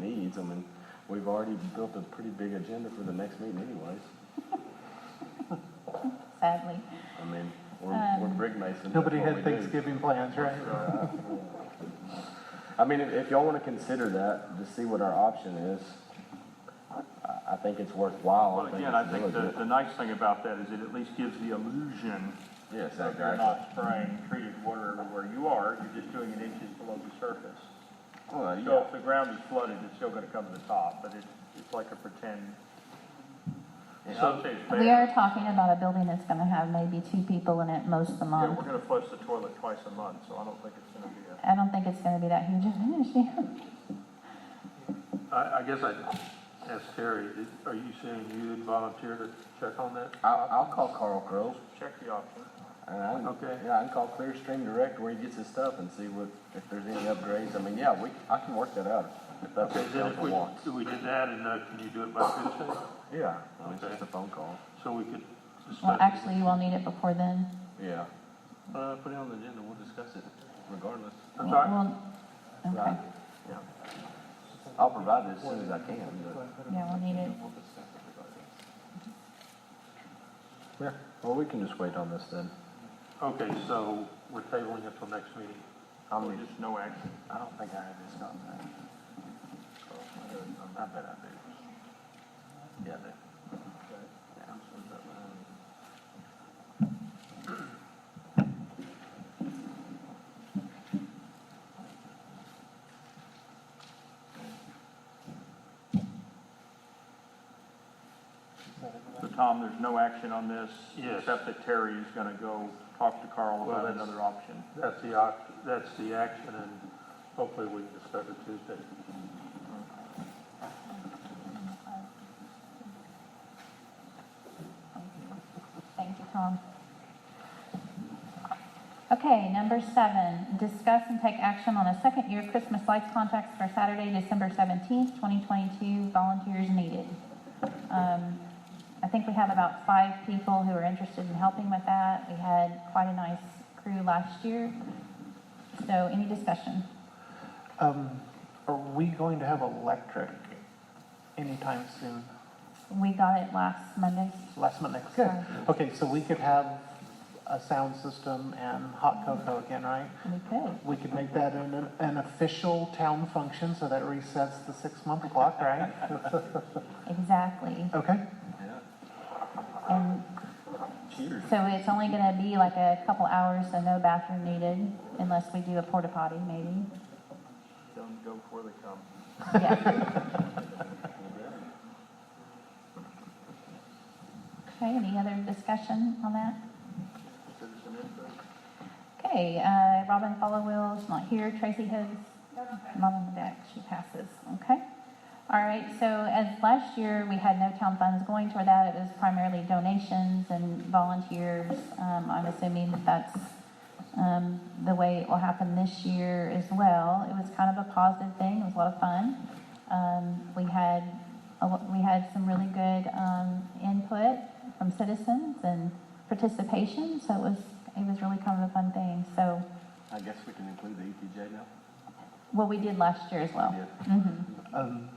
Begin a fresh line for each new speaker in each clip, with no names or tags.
needs them, and we've already built a pretty big agenda for the next meeting anyways.
sadly.
I mean, we're, we're brick masons. that's
Nobody
what
had
we do.
Thanksgiving plans, right?
I mean, if if y'all want to consider that, to see what our option is, I- I think it's worthwhile.
Well, again, I think
it's
the,
diligent.
the nice thing about that is it at least gives the illusion
Yes,
that
exactly.
you're not spraying treated water everywhere you are, you're just doing it inches below the surface.
Well, yeah.
So if the ground is flooded, it's still gonna come to the top, but it, it's like a pretend.
Yeah.
Some say it's
We
bad.
are talking about a building that's gonna have maybe two people in it most a
Yeah,
month.
we're gonna flush the toilet twice a month, so I don't think it's gonna be a.
I don't think it's gonna be that huge of an issue.
I, I guess I'd ask Terry, did- are you saying you would volunteer to check on that?
I'll, I'll call Carl Crowe,
Check the option.
and I,
Okay.
yeah, I can call Clearstream Direct where he gets his stuff and see what, if there's any upgrades. I mean, yeah, we, I can work that out, if that's
Okay,
what
then if
council
we,
wants.
if we did that, and, uh, can you do it by Tuesday?
Yeah, I mean, it's just
Okay.
a phone call,
So we could discuss.
Well,
it.
actually, you will need it before then.
yeah,
Uh, put it on the agenda, we'll discuss it.
regardless.
I'm sorry?
Well, Okay,
I'll provide it as soon as I can, but.
yeah, we'll need it.
Yeah, well, we can just wait on this then.
Okay, so we're tabling it till next meeting.
I
Well,
mean,
Just no action.
I don't think I have his contact. I bet I do. Yeah, I do.
So Tom, there's no action on this?
Yes.
Except that Terry is gonna go talk to Carl
Well,
about
that's-
another option.
That's the oc, that's the action, and hopefully we can discuss it Tuesday.
Thank you, Tom. Okay, number seven, discuss and take action on a second-year Christmas lights contracts for Saturday, December seventeenth, twenty twenty-two, volunteers needed. Um, I think we have about five people who are interested in helping with that. We had quite a nice crew last year. So any discussion?
Um, are we going to have electric anytime soon?
We got it last Monday.
Last month, next. Good. Okay, so we could have a sound system and hot cocoa again, right?
We could.
We could make that an, an official town function so that resets the six-month clock, right?
Exactly.
Okay,
And
Cheers.
Um, so it's only gonna be like a couple hours, so no bathroom needed, unless we do a porta potty, maybe.
Tell them to go before they come.
Yeah. Okay, any other discussion on that?
Citizen input.
Okay, uh, Robin Followill's not here, Tracy Higgs, mom on the deck, she passes, okay? All right, so as last year, we had no town funds going toward that, it was primarily donations and volunteers. Um, I'm assuming that that's, um, the way it will happen this year as well. It was kind of a positive thing, it was a lot of fun. Um, we had, a lo- we had some really good, um, input from citizens and participation, so it was, it was really kind of a fun thing, so,
I guess we can include the ETJ now?
well, we did last year as well. Mhm.
um,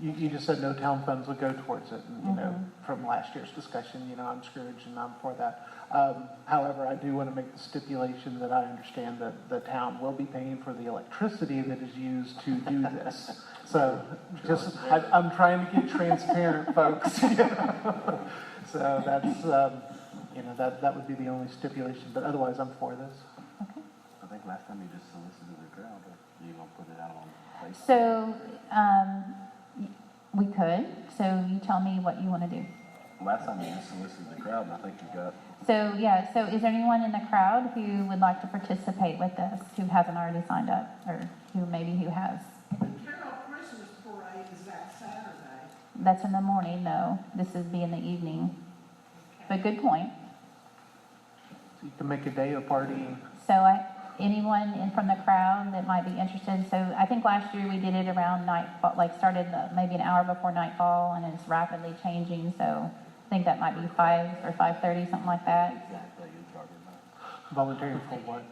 you, you just said no town funds would go towards it, and, you know, from last year's discussion, you know, I'm Scrooge and I'm for that. Um, however, I do want to make the stipulation that I understand that the town will be paying for the electricity that is used to do this. So, just, I, I'm trying to get transparent, folks. So that's, um, you know, that, that would be the only stipulation, but otherwise, I'm for this.
Okay.
I think last time you just solicited the crowd, or you gonna put it out on Facebook?
So, um, y- we could, so you tell me what you want to do.
Last time you just solicited the crowd, and I think you got,
So, yeah, so is there anyone in the crowd who would like to participate with us, who hasn't already signed up, or who maybe who has?
The Carol Christmas parade is that Saturday.
That's in the morning, though, this is be in the evening, but good point.
So you can make a day of partying.
So I, anyone in from the crowd that might be interested, so I think last year we did it around nightfall, like started the- maybe an hour before nightfall and it's rapidly changing, so I think that might be five or five-thirty, something like that.
exactly, you're talking about.
Volunteering for what?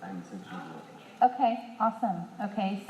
I haven't sent you the.
Okay, awesome. Okay,